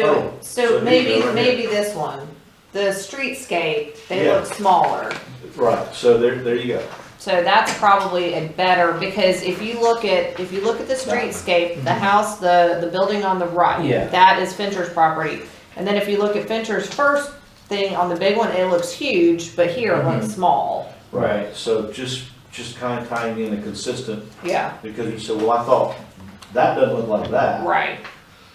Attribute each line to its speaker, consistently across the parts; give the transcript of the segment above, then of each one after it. Speaker 1: So,
Speaker 2: Oh, so
Speaker 1: so
Speaker 2: these
Speaker 1: maybe,
Speaker 2: are right
Speaker 1: maybe this one, the streetscape, they
Speaker 2: Yeah.
Speaker 1: look smaller.
Speaker 2: Right, so there, there you go.
Speaker 1: So that's probably a better, because if you look at, if you look at the streetscape,
Speaker 2: Mm-hmm.
Speaker 1: the house, the, the building on the right,
Speaker 3: Yeah.
Speaker 1: that is Fincher's property. And then if you look at Fincher's first thing on the big one, it looks huge, but here it
Speaker 2: Mm-hmm.
Speaker 1: looks small.
Speaker 3: Right.
Speaker 2: So just, just kind of tying in a consistent,
Speaker 1: Yeah,
Speaker 2: because you said, well, I thought that doesn't look like that.
Speaker 1: right,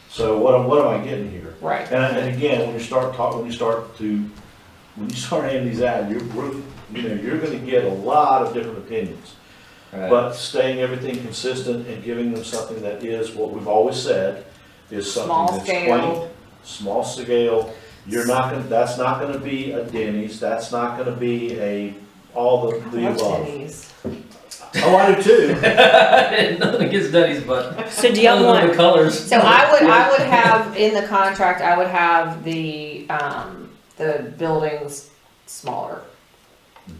Speaker 2: So what, am- what am I getting here?
Speaker 1: right.
Speaker 2: And, and again, when you start talking, when you start to, when you start handing these out, you're, we're- you know, you're gonna get a lot of different opinions.
Speaker 3: Right.
Speaker 2: But staying everything consistent and giving them something that is what we've always said, is
Speaker 1: Small
Speaker 2: something that's
Speaker 1: scale.
Speaker 2: quaint, small scale. You're not gonna, that's not gonna be a Denny's, that's not gonna be a, all the, the
Speaker 1: What's
Speaker 2: above.
Speaker 1: Denny's?
Speaker 2: Oh, I do too.
Speaker 3: Nothing against Denny's, but
Speaker 4: So do
Speaker 3: other
Speaker 4: y'all
Speaker 3: than
Speaker 4: want,
Speaker 3: the colors.
Speaker 1: So I would, I would have, in the contract, I would have the, um, the buildings smaller.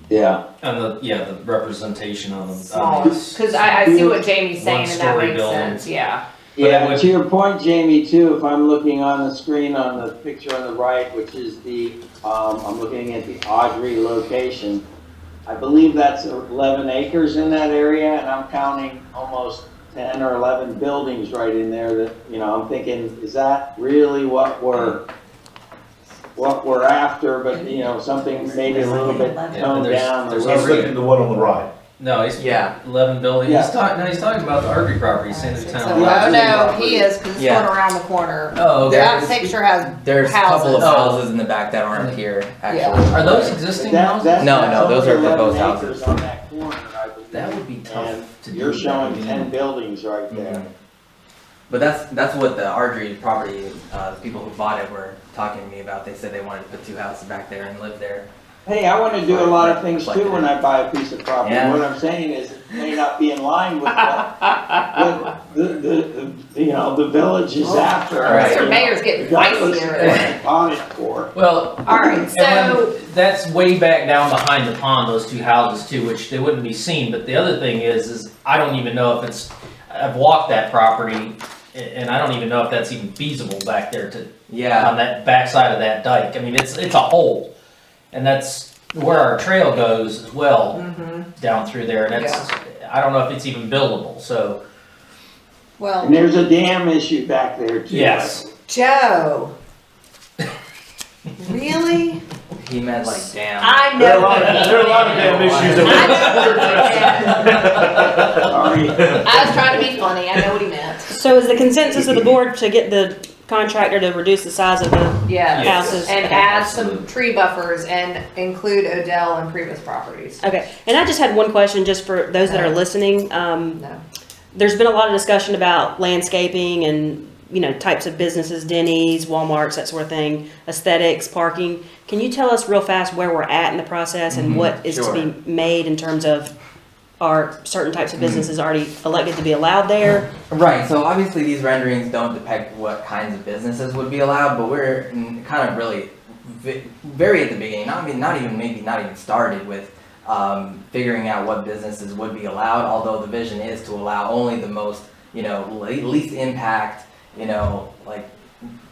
Speaker 5: Yeah,
Speaker 3: And the, yeah, the representation on the.
Speaker 1: Smaller, because I, I see what Jamie's saying and that
Speaker 3: One-story
Speaker 1: makes
Speaker 3: building.
Speaker 1: sense, yeah.
Speaker 3: But I
Speaker 5: yeah,
Speaker 3: would-
Speaker 5: to your point, Jamie, too, if I'm looking on the screen on the picture on the right, which is the, um, I'm looking at the Audrey location. I believe that's eleven acres in that area, and I'm counting almost ten or eleven buildings right in there that, you know, I'm thinking, is that really what we're, what we're after, but, you know, something maybe a little bit toned
Speaker 3: there's-
Speaker 5: down. a
Speaker 3: there's
Speaker 2: I was
Speaker 5: little
Speaker 3: every-
Speaker 5: bit.
Speaker 2: looking at the one on the right.
Speaker 3: No, he's
Speaker 6: Yeah.
Speaker 3: eleven building.
Speaker 5: Yeah.
Speaker 3: He's talking. No, he's talking about the Arby property, saying the
Speaker 1: So-
Speaker 3: town.
Speaker 1: Oh,
Speaker 6: Yeah.
Speaker 1: no, he is, because it's
Speaker 6: Yeah.
Speaker 1: going around the corner.
Speaker 3: Oh, okay.
Speaker 1: That picture has,
Speaker 6: There's a couple of
Speaker 1: Houses.
Speaker 6: houses in the back that aren't here, actually.
Speaker 3: Are those existing
Speaker 5: That-
Speaker 3: houses?
Speaker 5: that's-
Speaker 6: No,
Speaker 5: that's
Speaker 6: no, those are
Speaker 5: over 11
Speaker 6: proposed
Speaker 5: acres
Speaker 6: houses.
Speaker 5: on that corner, I believe.
Speaker 3: That would be tough to do.
Speaker 5: You're showing
Speaker 3: I mean,
Speaker 5: ten buildings right
Speaker 3: Mm-hmm.
Speaker 5: there.
Speaker 6: But that's that's what the Ardrey property, uh, the people who bought it were talking to me about. They said they wanted to put two houses back there and live there.
Speaker 5: Hey, I wanna do a lot of things too when I buy a piece of property,
Speaker 6: Yeah.
Speaker 5: what I'm saying is, it may not be in line with what, what the, the, the, you know, the village is after.
Speaker 6: Right.
Speaker 1: Mr. Mayor's getting feisty over there.
Speaker 5: On it for.
Speaker 3: Well,
Speaker 1: All right,
Speaker 3: and
Speaker 1: so,
Speaker 3: when- that's way back down behind the pond. Those two houses too, which they wouldn't be seen. But the other thing is, is I don't even know if it's. I've walked that property, a- and I don't even know if that's even feasible back there to
Speaker 6: Yeah,
Speaker 3: on that backside of that dike. I mean, it's it's a hole, and that's where our trail goes as well
Speaker 1: mhm.
Speaker 6: Mm-hmm.
Speaker 3: down through there. And that's I don't know if it's even buildable. So
Speaker 1: well,
Speaker 5: And there's a dam issue back there too.
Speaker 3: Yes.
Speaker 1: Joe. Really?
Speaker 6: he meant like damn.
Speaker 1: I
Speaker 2: There are a
Speaker 1: know.
Speaker 2: lot of, there are a lot of damn issues
Speaker 1: I know
Speaker 2: that
Speaker 1: what he meant.
Speaker 5: Sorry.
Speaker 1: I was trying to be funny, I know what he meant.
Speaker 4: so is the consensus of the board to get the contractor to reduce the size of the
Speaker 1: Yeah.
Speaker 4: houses?
Speaker 1: And
Speaker 4: Okay.
Speaker 1: add some tree buffers and include Odell and previous properties.
Speaker 4: Okay, and I just had one question, just for those that are listening. Um,
Speaker 1: No.
Speaker 4: there's been a lot of discussion about landscaping and, you know, types of businesses, Denny's, Walmart's, that sort of thing, aesthetics, parking. Can you tell us real fast where we're at in the process and what is to be made in terms of are certain types of businesses already elected to be allowed there?
Speaker 6: Right. So obviously these renderings don't depict what kinds of businesses would be allowed, but we're mm, kind of really ve- very at the beginning. Not I mean, not even maybe not even started with um, figuring out what businesses would be allowed. Although the vision is to allow only the most you know le- least impact you know like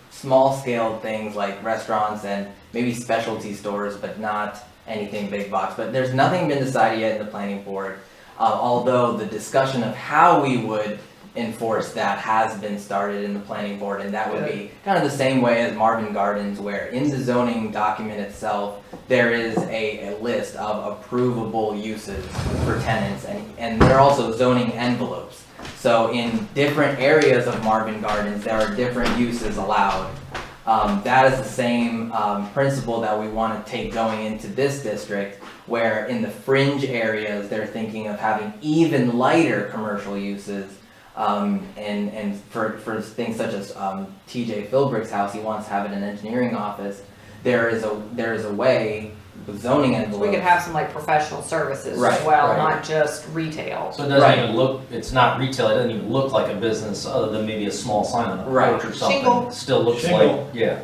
Speaker 6: small scale things like restaurants and maybe specialty stores, but not anything big box. But there's nothing been decided yet in the planning board. Uh, although the discussion of how we would enforce that has been started in the planning board, and that would be kind of the same way as Marvin Gardens, where in the zoning document itself, there is a, a list of approvable uses for tenants, and, and there are also zoning envelopes. So in different areas of Marvin Gardens, there are different uses allowed. Um, that is the same, um, principle that we wanna take going into this district, where in the fringe areas, they're thinking of having even lighter commercial uses. Um, and, and for, for things such as, um, TJ Philbrick's house, he wants to have it an engineering office. There is a, there is a way with zoning
Speaker 1: We
Speaker 6: envelopes.
Speaker 1: could have some like professional services as
Speaker 6: Right,
Speaker 1: well,
Speaker 6: right.
Speaker 1: not just retail.
Speaker 3: so it doesn't
Speaker 6: Right.
Speaker 3: even look. It's not retail. It doesn't even look like a business other than maybe a small sign on a
Speaker 6: Right.
Speaker 3: porch or something.
Speaker 1: Shingle.
Speaker 3: Still looks
Speaker 2: Shingle.
Speaker 3: like yeah.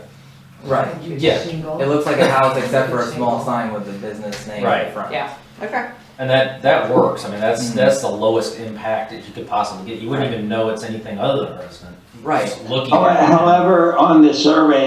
Speaker 6: Right,
Speaker 3: Yeah.
Speaker 6: it looks like a house except for a small sign with the business name
Speaker 3: Right.
Speaker 6: in front.
Speaker 1: Yeah, okay.
Speaker 3: And that, that works. I mean, that's,
Speaker 6: Mhm.
Speaker 3: that's the lowest impact that you could possibly get. You wouldn't even know it's anything other than a resident.
Speaker 6: Right.
Speaker 3: Just looking.
Speaker 5: However, on the survey,